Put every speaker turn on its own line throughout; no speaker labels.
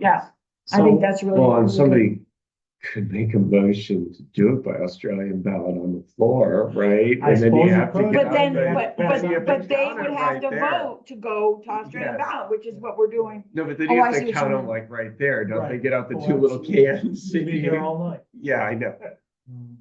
Yeah, I think that's really.
Well, and somebody could make a motion to do it by Australian ballot on the floor, right?
I
And then
suppose
you
you
have to
could.
get
But
out
then,
of
but,
it.
that's the
but, but they
Count it
would have
right
to
there.
vote to go to Australian
Yes.
ballot, which is what we're doing.
No, but then
Oh,
you
I
have
see
to
what you
count them
mean.
like right there, don't they
Right.
get out the
Oh,
two little
absolutely.
cans?
You'd be here all night.
Yeah, I know.
Um,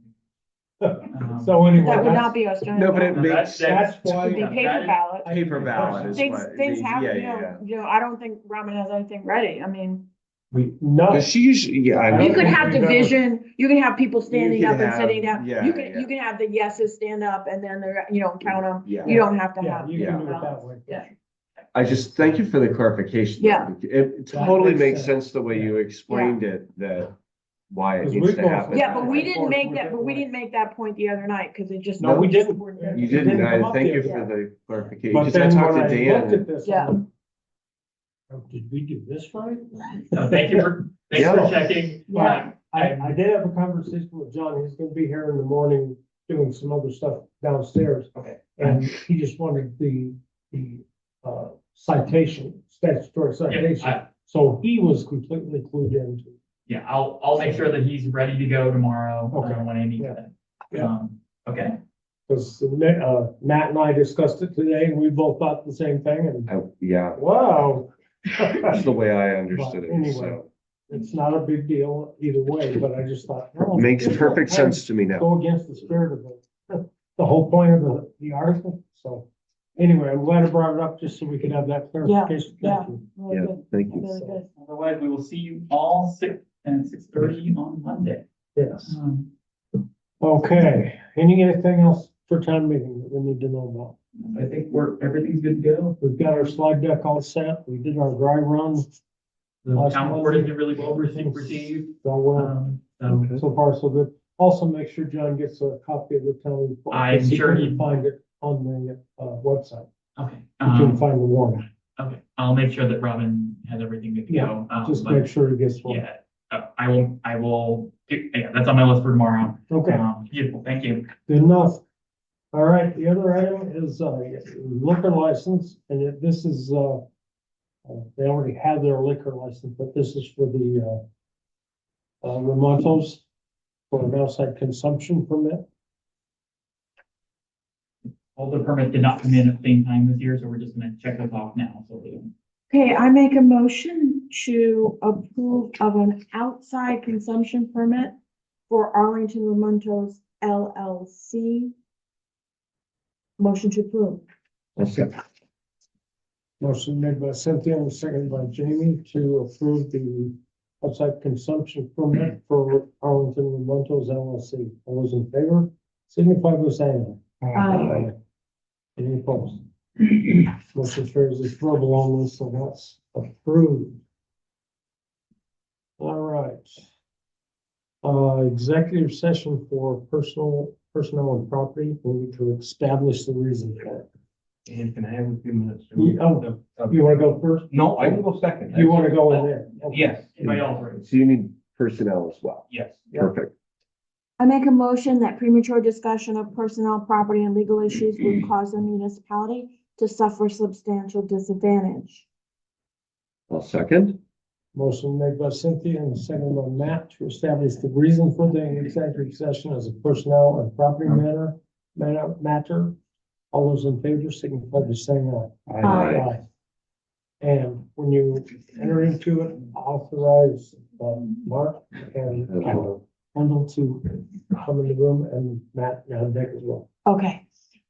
So
Mm-hmm.
anyway,
That would not
that's,
be Australian.
No, but it
ballot.
makes
that's,
sense.
that's
It'd be
why.
paper ballot.
Paper ballot is
Things,
what.
things
yeah,
happen, you
yeah, yeah.
know, you know, I don't think Robin has anything ready. I mean,
We, no,
But she usually, yeah. I
You
know.
you could have
think that was-
division, you can have people standing
can
up and
have-
sitting down.
yeah,
You can,
yeah.
you can have the yeses stand up and then they're, you know, count them.
Yeah.
You don't have to
yeah,
have.
you can do
Yeah.
it that way.
Yeah.
I just, thank you for the clarification. though.
Yeah.
It totally makes
That makes
sense the way you explained it, that why it
Because
needs
we've
to
gone
happen.
through
Yeah, but we
Of
didn't
course,
make
we
that, but we
didn't.
didn't make that point the other night because it just.
No, we didn't.
You didn't,
It didn't come
I
up
thank you
there.
for the clarification,
But
because I
then
talked
when
to
I looked
Dan.
at this,
Yeah.
I'm like, "Oh, did we do this right?
No, thank you for, thanks
Yeah.
for checking.
Yeah.
I, I did have a conversation with John, he's gonna be here in the morning doing some other stuff downstairs.
Okay.
And he just wanted the, the, uh, citation, statutory
Yeah,
citation,
I,
so he was completely clued into.
yeah, I'll, I'll make sure that he's ready to go tomorrow,
Okay.
uh, when Amy
Yeah.
gets in.
Yeah.
Um, okay,
Because uh, Matt and I discussed it today, and we both thought the same thing, and
I- Yeah,
wow.
that's the way I understood
But anyway.
it, so.
It's not a big deal either way, but I just thought. well,
Makes
it's a-
perfect sense to me now.
Go against the spirit of the, the whole point of the, the article, so. Anyway, I'm glad I brought it up, just so we could have that clarification.
yeah.
Thank you.
Really
Yeah,
good,
thank you.
really good.
otherwise we will see you all six and six thirty on Monday.
Yes,
Um,
okay, any, anything else for town meeting that we need to know about?
I think we're, everything's good to go.
We've got our slide deck all set, we did our dry run,
The
Last
town
one.
board has been really well received, received.
so uh, well.
Um, so
So far, so good. Also, make sure John gets a copy of the town report.
I'm
because he
sure he-
couldn't Find it on the, uh, website.
Okay,
You can
um,
find the warrant.
okay, I'll make sure that Robin has everything good to go. um,
Just
but-
make sure he gets one.
Yeah, uh, I will, I will, yeah, that's on my list for tomorrow.
Okay,
Um, beautiful, thank you.
good enough. All right, the other item is, uh, liquor license, and it- this is, uh, uh, they already have their liquor license, but this is for the, uh, uh, Ramontos for an outside consumption permit.
All the permits did not come in at the same time this year, so we're just gonna check those off now, so we don't.
Okay, I make a motion to approve of an outside consumption permit for Arlington Ramontos LLC. Motion to approve.
Okay.
Motion made by Cynthia and seconded by Jamie to approve the outside consumption permit for Arlington Ramontos LLC. All those in favor, signify by saying aye.
Aye.
Any opposed? Motion carries as verbal only, so that's approved. All right. Uh, executive session for personal, personnel and property, we need to establish the reason for it.
And can I have a few minutes?
You- oh, You wanna go first?
No, I can go second.
You wanna go in there? Okay.
Yes.
Anybody else? Ruth?
So you need personnel as well.
Yes.
Perfect.
I make a motion that premature discussion of personnel, property, and legal issues would cause the municipality to suffer substantial disadvantage.
I'll second.
Motion made by Cynthia and seconded by Matt to establish the reason for the executive session as a personnel and property matter, matter, matter. All those in favor signify by saying aye.
Aye.
And when you enter into it, authorize, um, Mark and Kendall Kendall to come in the room and Matt, and Dick as well.
Okay,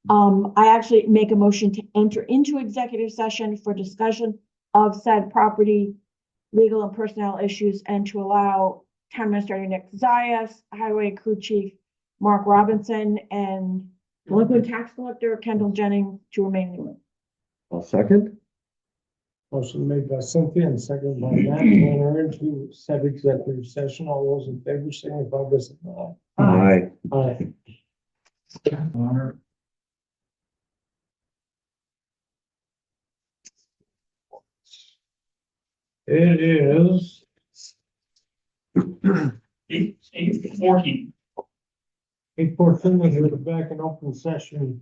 um, I actually make a motion to enter into executive session for discussion of said property, legal and personnel issues, and to allow town administrator Nick Zayas, highway crew chief Mark Robinson, and delinquent tax collector Kendall Jennings to remain in the room.
I'll second.
Motion made by Cynthia and seconded by Matt to enter into said executive session. All those in favor signify by saying aye.
Aye.
Aye.
Or-
It is.
Eight, eight fourteen.
Eight fourteen, we're back in open session.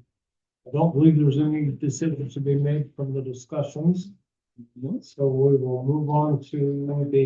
I don't believe there's any decisions to be made from the discussions. So we will move on to the